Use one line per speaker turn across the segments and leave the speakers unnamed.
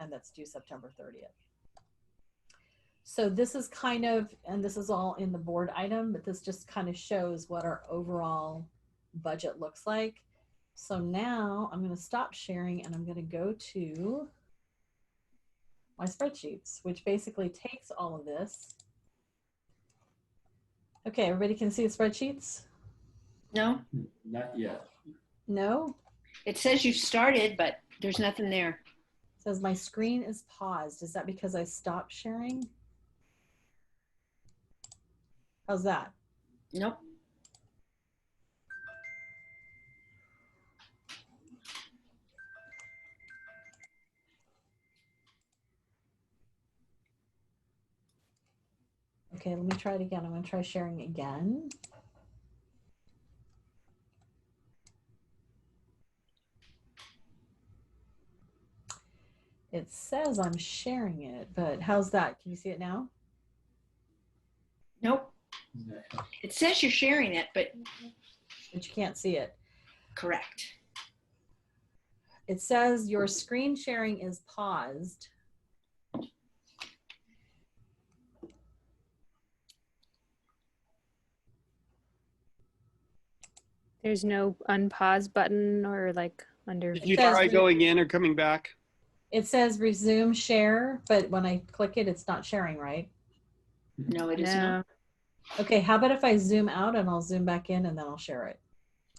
and that's due September 30th. So this is kind of, and this is all in the board item, but this just kind of shows what our overall budget looks like. So now I'm going to stop sharing and I'm going to go to my spreadsheets, which basically takes all of this. Okay, everybody can see the spreadsheets?
No,
Not yet.
No?
it says you started, but there's nothing there.
Says my screen is paused. Is that because I stopped sharing? How's that?
Nope.
Okay, let me try it again. I'm going to try sharing again. It says I'm sharing it, but how's that? Can you see it now?
Nope.
No.
It says you're sharing it, but
But you can't see it.
correct.
It says your screen sharing is paused.
There's no unpause button or like under.
Did you
says
try
re-
going in or coming back?
It says resume share, but when I click it, it's not sharing, right?
No, it is not.
No.
Okay, how about if I zoom out and I'll zoom back in and then I'll share it?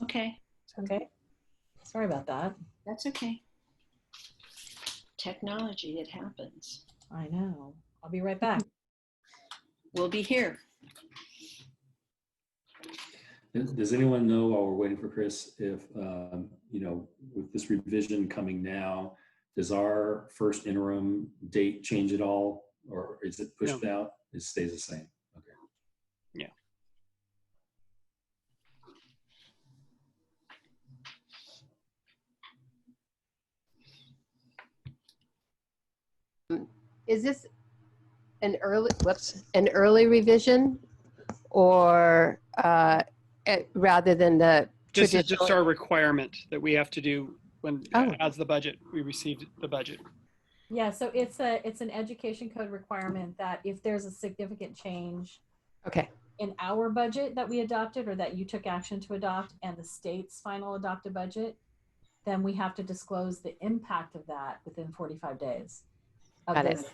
Okay,
Okay. Sorry about that.
that's okay. Technology, it happens.
I know. I'll be right back.
We'll be here.
Does does anyone know while we're waiting for Chris, if, um, you know, with this revision coming now, does our first interim date change at all? Or is it pushed out? It stays the same? Okay.
Yeah.
Is this an early, whoops, an early revision? Or uh, eh, rather than the
This is
Traditionally-
just our requirement that we have to do when, uh,
Oh.
as the budget, we received the budget.
Yeah, so it's a it's an education code requirement that if there's a significant change
Okay,
in our budget that we adopted or that you took action to adopt and the state's final adopted budget, then we have to disclose the impact of that within 45 days. of
Got it.
this.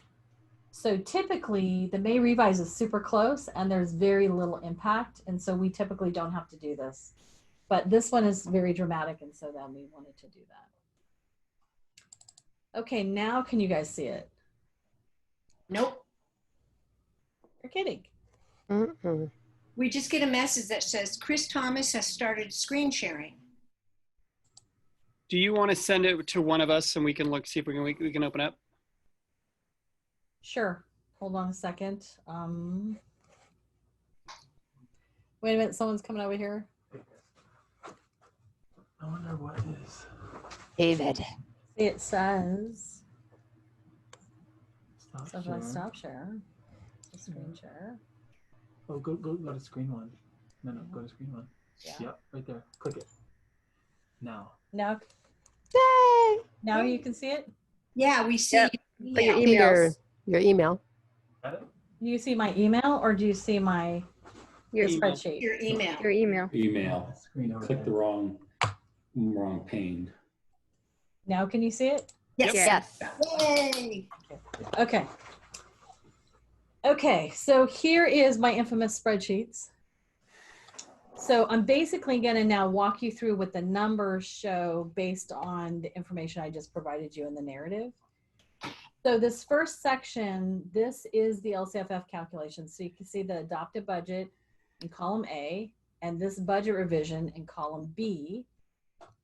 So typically, the May revise is super close and there's very little impact. And so we typically don't have to do this. But this one is very dramatic. And so then we wanted to do that. Okay, now can you guys see it?
Nope.
You're kidding.
Mm-mm.
We just get a message that says Chris Thomas has started screen sharing.
Do you want to send it to one of us and we can look, see if we can, we, we can open up?
Sure. Hold on a second. Um, wait a minute. Someone's coming over here.
I wonder what is.
David.
It says,
Stop
so if I
share.
stop share, the screen share.
Oh, go, go, go to screen one. No, no, go to screen one.
Yeah.
Yep, right there. Click it. Now.
Now,
Yay!
now you can see it.
Yeah, we see.
Yep. But
Yeah.
your
See Your,
emails,
your email.
Got it?
Do you see my email or do you see my
your,
Email.
spreadsheet?
Your email.
your email.
Email,
Screen over
click the
there.
wrong, wrong pane.
Now can you see it?
Yes.
Yes.
Yay.
Okay. Okay, so here is my infamous spreadsheets. So I'm basically going to now walk you through what the numbers show based on the information I just provided you in the narrative. So this first section, this is the LCFF calculation. So you can see the adopted budget in column A and this budget revision in column B.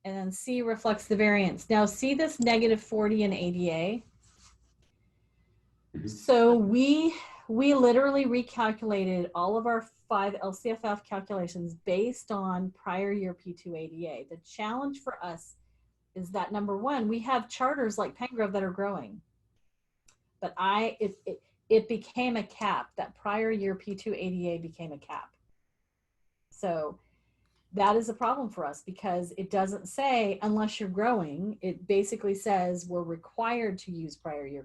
And then C reflects the variance. Now see this negative 40 in ADA? So we we literally recalculated all of our five LCFF calculations based on prior year P2ADA. The challenge for us is that number one, we have charters like Pengrove that are growing. But I it it, it became a cap. That prior year P2ADA became a cap. So that is a problem for us because it doesn't say unless you're growing. It basically says we're required to use prior year